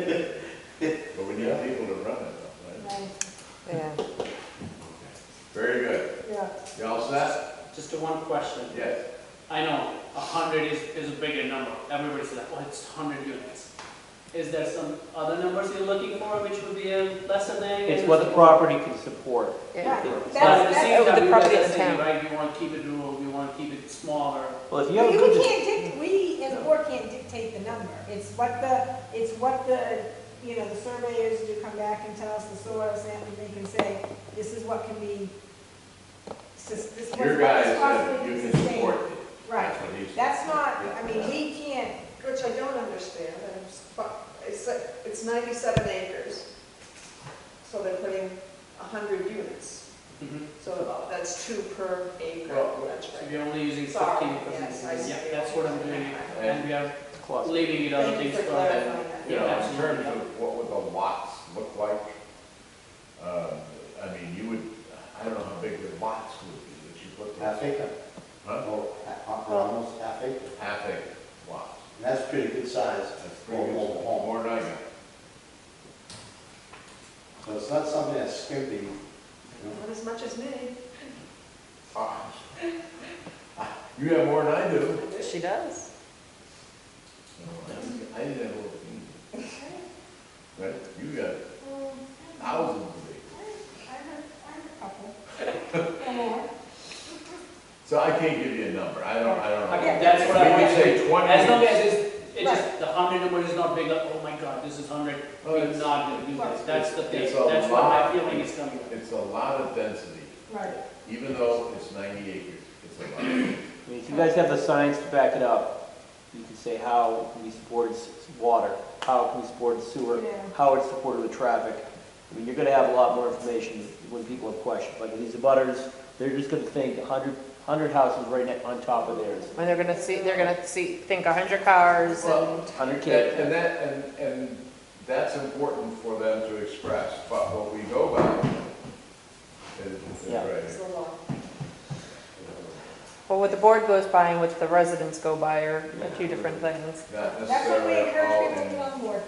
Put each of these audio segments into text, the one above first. But we need people to run it, though, right? Yeah. Very good. Yeah. Y'all set? Just a one question. Yes. I know a hundred is, is a bigger number. Everybody says, oh, it's hundred units. Is there some other numbers you're looking for which would be a lesser than? It's what the property can support. Yeah. But That's- at the that's same the time, you guys property are of the saying, town. right, you want to keep it rural, you want to keep it smaller. Well, if you We have a good, can't dic, we as a board can't dictate the number. It's what the, it's what the, you know, the surveyors do come back and tell us the source and they can say, this is what can be, sus- this is Your what guy is said possibly you can can sustain. support it. Right. That's what he said. That's not, I mean, we can't, Which I don't understand, and it's fu- it's, like- it's ninety-seven acres, so they're putting hundred units, Mhm. so that's two per acre, Well, that's So right. you're only using Sorry, fifteen yes, I percent. see. Yeah, that's what I'm doing. And we are clause. leaving it other Thank you things for for clarifying that. You Yeah, know, in absolutely. terms of what would the lots look like, uh, I mean, you would, I don't know how big the lots would be that you put there. Half acre, Huh? or almost half acre. Half acre lots. And that's pretty good size That's for a pretty good. mobile home. More than I got. So it's not something that's skimpy, you know. Not as much as me. Ah. Ah, You have more than I do. She does. No, I- I didn't have a little thing. Right, you got thousands of acres. I have, I have a couple. Or more. So I can't give you a number, I don't, I don't know. Okay, that's what I We want could say twenty. As long as it's, it's just, the hundred number is not big, like, oh my god, this is hundred, Oh, we're it's- not gonna do this. That's the thing, It's a that's what my lot. feeling is coming. It's a lot of density, Right. even though it's ninety acres, it's a lot. of- I mean, if you guys have the science to back it up, you can say how it can be supported s- water, how it can be supported sewer, Yeah. how it's supported with traffic. I mean, you're gonna have a lot more information when people have questions, like these abutters, they're just gonna think a hundred, hundred houses right ne- on top of theirs, And they're gonna see, they're gonna see, think a hundred cars Well, and, hundred That- K. And that, and, and that's important for them to express, but what we go by is, is Yeah. right It's here. a lot. well, what the board goes by and what the residents go by are two different things. Not That's what we necessarily all encourage people to in, do on board.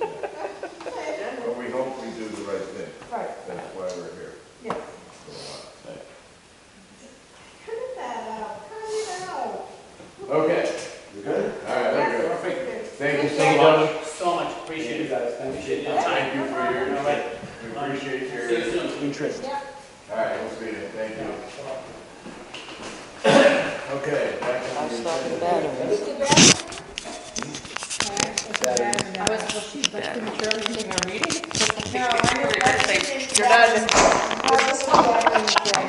but we hope we do the right thing, Right, that's why we're here. yeah. for a while. Cut that out, cut it out. Okay, You good? all right, very good. Thank you so Thank you. much. So much, appreciate You it. guys, thank you. Appreciate your time. Thank you for your, All right. we appreciate your, See you soon. Interest. Yeah. all right, we'll see you, thank you. Okay. back on the agenda. Is it bad? I was, well, she's much premature, we can even read it. No, I know, but I think- You're not,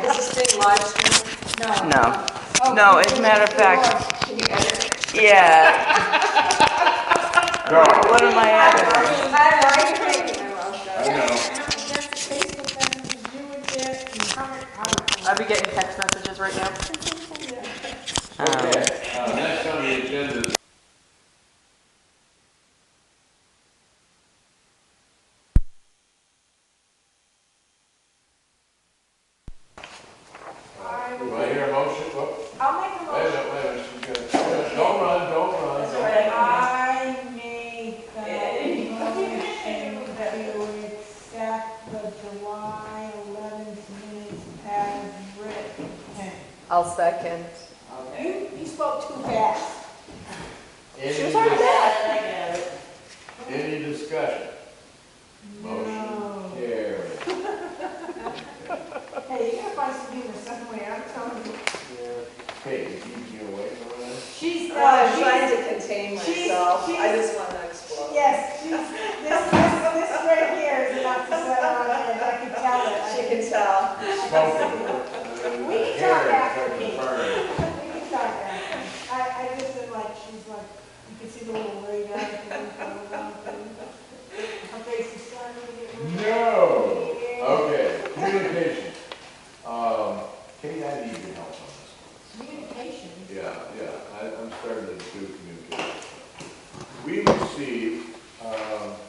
Is this being live streamed? No. Oh, No, as a matter of fact, Can you edit? yeah. No, What am I at? I like it. I love that. I know. I'll be getting text messages right now. Okay, uh, next on the agenda is Uh, Do I hear a motion? Whoop, I'll make a Wait a motion. minute, wait a minute, she's gonna, don't run, don't run. don't- I make the motion that we accept the July 11th minutes as written. I'll second. You, you spoke too fast. Any dis- Any discussion? Motion No. carried. Um, Hey, you gotta find Sabina somewhere, I'm telling you. Okay, you keep me away from that? She's, I'm uh, trying she's, to contain she's- myself, I she's- just want to explode. yes, she's, this, this, this right here is about to set on edge, I can tell it. She can tell. Spoken. We can talk Carried, after from the me. firm. We can talk after. I, I just said like, she's like, you can see the little ray down there. Her face is starting to get red. No. Okay, communication. Um, Kate, I need your help on this one. Communication. Yeah, yeah, I, I'm starting to do communication. We received, um, uh, um,